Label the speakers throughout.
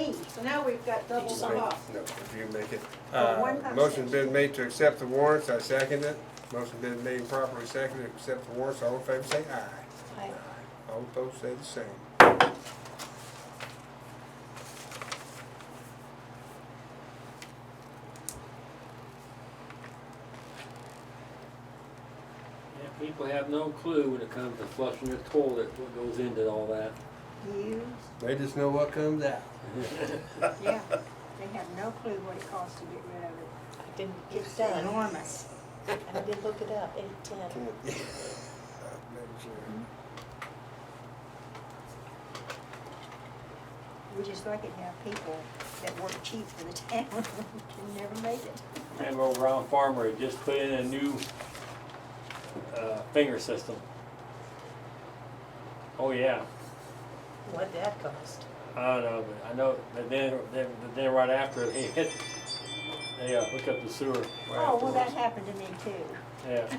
Speaker 1: So now we've got double the
Speaker 2: Right.
Speaker 1: cost.
Speaker 2: No, if you make it.
Speaker 1: For
Speaker 3: Uh,
Speaker 1: one percent.
Speaker 2: Motion been made to accept the warrants, I second it. Motion been made and properly seconded, to accept the warrants, all in favor say aye.
Speaker 1: Aye.
Speaker 2: All opposed say the same.
Speaker 4: Yeah, People have no clue when it comes to flushing the toilet, what goes into all that.
Speaker 1: You,
Speaker 2: They just know what comes out.
Speaker 1: yeah, they have no clue what it costs to get rid of it.
Speaker 5: I didn't,
Speaker 1: It's enormous.
Speaker 5: I did look it up, eight ten.
Speaker 1: We just like it to have people that work cheap for the town can never make it.
Speaker 4: And over Brown Farmer had just put in a new, uh, finger system. Oh, yeah,
Speaker 5: What'd that cost?
Speaker 4: I don't know, but I know, but then, then, but then right after he hit, they, uh, hooked up the sewer. right
Speaker 1: Oh, well, that
Speaker 4: afterwards.
Speaker 1: happened to me too.
Speaker 4: Yeah,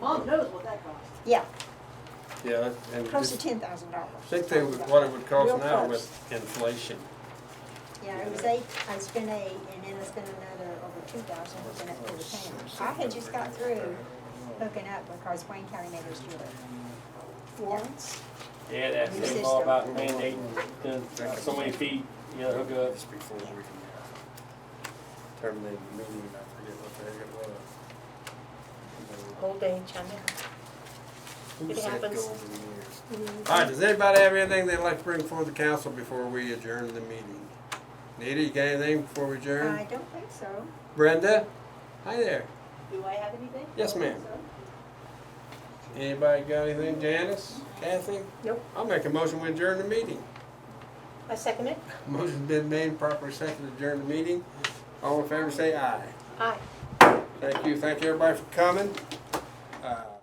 Speaker 6: Mom knows what that costs.
Speaker 1: Yeah,
Speaker 2: Yeah, and
Speaker 1: close to
Speaker 2: just
Speaker 1: ten thousand dollars.
Speaker 2: think they, would- what it would cost
Speaker 1: Real
Speaker 2: now
Speaker 1: close.
Speaker 2: with inflation.
Speaker 1: Yeah, it was eight, I spent eight, and then I spent another over two thousand hooking up to the town. I had just got through hooking up because Wayne County made us do it. Once,
Speaker 4: yeah, that's
Speaker 1: New
Speaker 4: it's all about
Speaker 2: system.
Speaker 4: mandating, then, uh, so many feet, you know, hookups.
Speaker 2: This before we can uh, terminate the meeting, I forget what uh, the heck it was.
Speaker 5: Old age, I know.
Speaker 2: Who
Speaker 5: It
Speaker 2: said
Speaker 5: happens.
Speaker 2: go over the years? All right, does anybody have anything they'd like to bring before the council before we adjourn the meeting? Nita, you got anything before we
Speaker 1: I
Speaker 2: adjourn?
Speaker 1: don't think so.
Speaker 2: Brenda? Hi there.
Speaker 6: Do I have anything?
Speaker 2: Yes, ma'am. Anybody got anything? Janice? Kathy?
Speaker 5: Nope.
Speaker 2: I'll make a motion we adjourn the meeting.
Speaker 5: I second it.
Speaker 2: Motion's been made, properly seconded, adjourn the meeting. All in favor, say aye.
Speaker 5: Aye.
Speaker 2: Thank you, thank you everybody for coming. Uh,